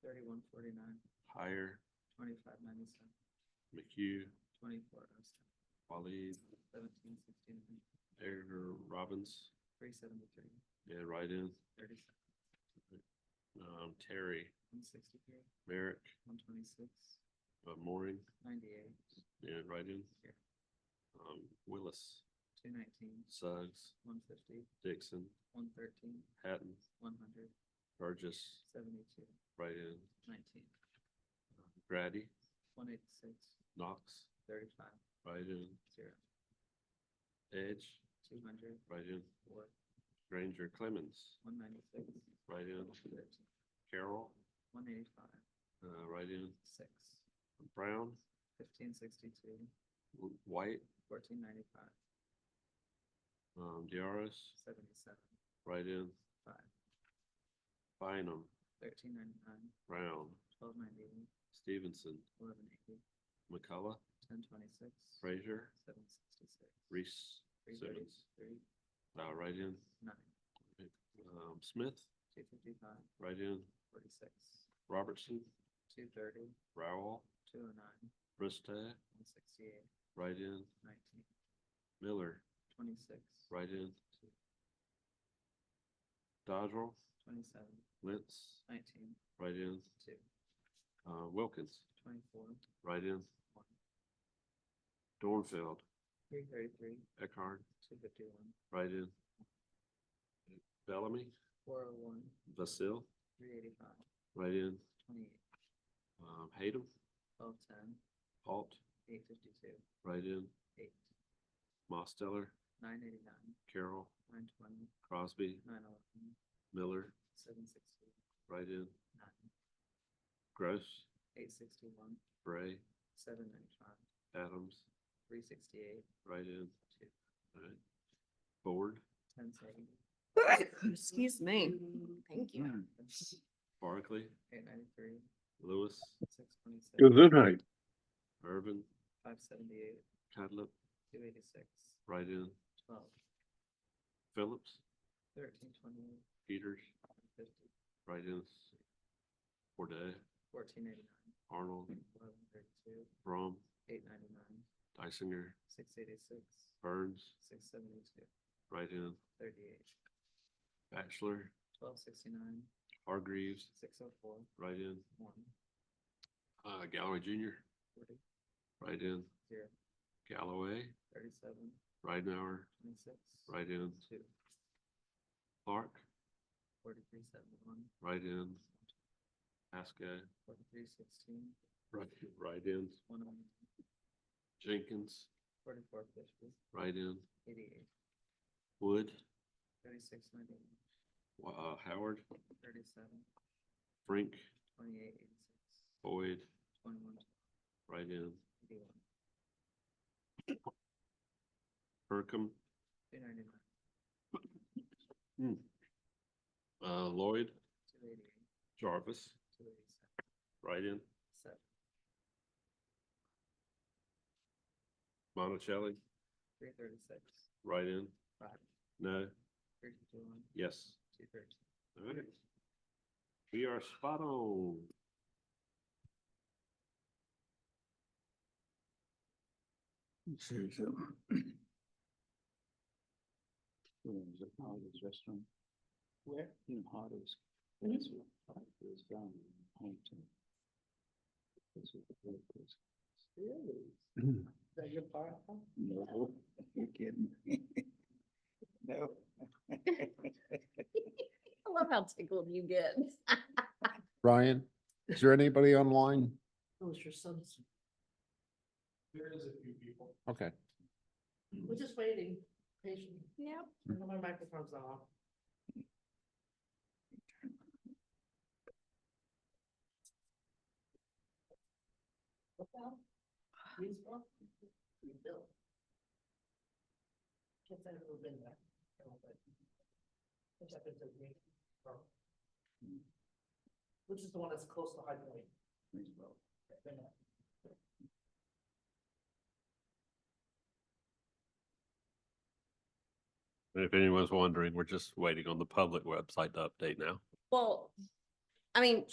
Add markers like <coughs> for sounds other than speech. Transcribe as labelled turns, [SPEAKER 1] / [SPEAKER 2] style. [SPEAKER 1] Thirty-one forty-nine,
[SPEAKER 2] Hire
[SPEAKER 1] twenty-five ninety-seven,
[SPEAKER 2] McHugh,
[SPEAKER 1] twenty-four oh seven,
[SPEAKER 2] Waleed,
[SPEAKER 1] seventeen sixty-nine,
[SPEAKER 2] Edgar Robbins,
[SPEAKER 1] three seventy-three,
[SPEAKER 2] yeah, write-in,
[SPEAKER 1] thirty-seven,
[SPEAKER 2] um, Terry,
[SPEAKER 1] one sixty-three,
[SPEAKER 2] Merrick,
[SPEAKER 1] one twenty-six,
[SPEAKER 2] uh, Mooring,
[SPEAKER 1] ninety-eight,
[SPEAKER 2] yeah, write-in.
[SPEAKER 1] Here.
[SPEAKER 2] Um, Willis,
[SPEAKER 1] two nineteen,
[SPEAKER 2] Suggs,
[SPEAKER 1] one fifty,
[SPEAKER 2] Dixon,
[SPEAKER 1] one thirteen,
[SPEAKER 2] Hatton,
[SPEAKER 1] one hundred,
[SPEAKER 2] Burgess,
[SPEAKER 1] seventy-two,
[SPEAKER 2] write-in,
[SPEAKER 1] nineteen,
[SPEAKER 2] Grady,
[SPEAKER 1] one eighty-six,
[SPEAKER 2] Knox,
[SPEAKER 1] thirty-five,
[SPEAKER 2] write-in,
[SPEAKER 1] zero,
[SPEAKER 2] Edge,
[SPEAKER 1] two hundred,
[SPEAKER 2] write-in,
[SPEAKER 1] four,
[SPEAKER 2] Granger Clemens,
[SPEAKER 1] one ninety-six,
[SPEAKER 2] write-in,
[SPEAKER 1] thirteen,
[SPEAKER 2] Carroll,
[SPEAKER 1] one eighty-five,
[SPEAKER 2] uh, write-in,
[SPEAKER 1] six,
[SPEAKER 2] Brown,
[SPEAKER 1] fifteen sixty-two,
[SPEAKER 2] White,
[SPEAKER 1] fourteen ninety-five,
[SPEAKER 2] um, Diarras,
[SPEAKER 1] seventy-seven,
[SPEAKER 2] write-in,
[SPEAKER 1] five,
[SPEAKER 2] Bynum,
[SPEAKER 1] thirteen ninety-nine,
[SPEAKER 2] Brown,
[SPEAKER 1] twelve ninety-eight,
[SPEAKER 2] Stevenson,
[SPEAKER 1] eleven eighty,
[SPEAKER 2] McCullough,
[SPEAKER 1] ten twenty-six,
[SPEAKER 2] Frazier,
[SPEAKER 1] seven sixty-six,
[SPEAKER 2] Reese,
[SPEAKER 1] three
[SPEAKER 2] Simmons,
[SPEAKER 1] thirty-three,
[SPEAKER 2] uh, write-in,
[SPEAKER 1] nine,
[SPEAKER 2] um, Smith,
[SPEAKER 1] two fifty-five,
[SPEAKER 2] write-in,
[SPEAKER 1] forty-six,
[SPEAKER 2] Robertson,
[SPEAKER 1] two thirty,
[SPEAKER 2] Rowell,
[SPEAKER 1] two oh nine,
[SPEAKER 2] Bristad,
[SPEAKER 1] one sixty-eight,
[SPEAKER 2] write-in,
[SPEAKER 1] nineteen,
[SPEAKER 2] Miller,
[SPEAKER 1] twenty-six,
[SPEAKER 2] write-in, Dodrell,
[SPEAKER 1] twenty-seven,
[SPEAKER 2] Lentz,
[SPEAKER 1] nineteen,
[SPEAKER 2] write-in,
[SPEAKER 1] two,
[SPEAKER 2] uh, Wilkins,
[SPEAKER 1] twenty-four,
[SPEAKER 2] write-in,
[SPEAKER 1] one,
[SPEAKER 2] Dornfeld,
[SPEAKER 1] three thirty-three,
[SPEAKER 2] Eckhart,
[SPEAKER 1] two fifty-one,
[SPEAKER 2] write-in, Bellamy,
[SPEAKER 1] four oh one,
[SPEAKER 2] Vasil,
[SPEAKER 1] three eighty-five,
[SPEAKER 2] write-in,
[SPEAKER 1] twenty-eight,
[SPEAKER 2] um, Hayden,
[SPEAKER 1] twelve ten,
[SPEAKER 2] Alt,
[SPEAKER 1] eight fifty-two,
[SPEAKER 2] write-in,
[SPEAKER 1] eight,
[SPEAKER 2] Mosteller,
[SPEAKER 1] nine eighty-nine,
[SPEAKER 2] Carroll,
[SPEAKER 1] nine twenty,
[SPEAKER 2] Crosby,
[SPEAKER 1] nine eleven,
[SPEAKER 2] Miller,
[SPEAKER 1] seven sixty,
[SPEAKER 2] write-in,
[SPEAKER 1] nine,
[SPEAKER 2] Gross,
[SPEAKER 1] eight sixty-one,
[SPEAKER 2] Bray,
[SPEAKER 1] seven ninety-five,
[SPEAKER 2] Adams,
[SPEAKER 1] three sixty-eight,
[SPEAKER 2] write-in,
[SPEAKER 1] two,
[SPEAKER 2] alright, Ford,
[SPEAKER 1] ten seventy,
[SPEAKER 3] <coughs> Excuse me. Thank you.
[SPEAKER 2] Barkley,
[SPEAKER 1] eight ninety-three,
[SPEAKER 2] Lewis,
[SPEAKER 1] six twenty-six,
[SPEAKER 4] Gesundheit.
[SPEAKER 2] Irvin,
[SPEAKER 1] five seventy-eight,
[SPEAKER 2] Cudlip,
[SPEAKER 1] two eighty-six,
[SPEAKER 2] write-in,
[SPEAKER 1] twelve,
[SPEAKER 2] Phillips,
[SPEAKER 1] thirteen twenty-eight,
[SPEAKER 2] Peters,
[SPEAKER 1] fifty,
[SPEAKER 2] write-in, Forday,
[SPEAKER 1] fourteen eighty-nine,
[SPEAKER 2] Arnold,
[SPEAKER 1] eleven thirty-two,
[SPEAKER 2] Brom,
[SPEAKER 1] eight ninety-nine,
[SPEAKER 2] Dysinger,
[SPEAKER 1] six eighty-six,
[SPEAKER 2] Burns,
[SPEAKER 1] six seventy-two,
[SPEAKER 2] write-in,
[SPEAKER 1] thirty-eight,
[SPEAKER 2] Bachelor,
[SPEAKER 1] twelve sixty-nine,
[SPEAKER 2] Hargreaves,
[SPEAKER 1] six oh four,
[SPEAKER 2] write-in,
[SPEAKER 1] one,
[SPEAKER 2] uh, Galloway Junior,
[SPEAKER 1] forty,
[SPEAKER 2] write-in,
[SPEAKER 1] zero,
[SPEAKER 2] Galloway,
[SPEAKER 1] thirty-seven,
[SPEAKER 2] Ridenhour,
[SPEAKER 1] twenty-six,
[SPEAKER 2] write-in,
[SPEAKER 1] two,
[SPEAKER 2] Clark,
[SPEAKER 1] forty-three seventy-one,
[SPEAKER 2] write-in, Haskell,
[SPEAKER 1] forty-three sixteen,
[SPEAKER 2] right, write-in,
[SPEAKER 1] one oh nine,
[SPEAKER 2] Jenkins,
[SPEAKER 1] forty-four fifty,
[SPEAKER 2] write-in,
[SPEAKER 1] eighty-eight,
[SPEAKER 2] Wood,
[SPEAKER 1] thirty-six ninety-one,
[SPEAKER 2] uh, Howard,
[SPEAKER 1] thirty-seven,
[SPEAKER 2] Frink,
[SPEAKER 1] twenty-eight eighty-six,
[SPEAKER 2] Boyd,
[SPEAKER 1] twenty-one
[SPEAKER 2] write-in,
[SPEAKER 1] eighty-one,
[SPEAKER 2] Burkham,
[SPEAKER 1] two ninety-nine,
[SPEAKER 2] uh, Lloyd,
[SPEAKER 1] two eighty-eight,
[SPEAKER 2] Jarvis,
[SPEAKER 1] two eighty-seven,
[SPEAKER 2] write-in,
[SPEAKER 1] seven,
[SPEAKER 2] Monticelli,
[SPEAKER 1] three thirty-six,
[SPEAKER 2] write-in,
[SPEAKER 1] five,
[SPEAKER 2] no,
[SPEAKER 1] three fifty-one,
[SPEAKER 2] yes.
[SPEAKER 1] two thirteen.
[SPEAKER 2] All right. We are spot on.
[SPEAKER 4] Restaurant.
[SPEAKER 1] Where? Mm-hmm.
[SPEAKER 4] You know, Hardee's.
[SPEAKER 3] Mhm.
[SPEAKER 4] That's what Hardee's down in Huntington. That's what the place is.
[SPEAKER 1] Really? That your part?
[SPEAKER 4] No, you're kidding. No.
[SPEAKER 3] I love how tickled you get.
[SPEAKER 5] Ryan, is there anybody online?
[SPEAKER 6] Oh, it's your son's.
[SPEAKER 2] There is a few people.
[SPEAKER 5] Okay.
[SPEAKER 6] We're just waiting patiently.
[SPEAKER 3] Yep.
[SPEAKER 6] My microphone's off. What's that? Greensboro? Greenville. Can't say I've ever been there. I don't think. Which happens to be Greensboro. Which is the one that's close to High Point. Greensboro.
[SPEAKER 2] If anyone's wondering, we're just waiting on the public website to update now.
[SPEAKER 3] Well, I mean,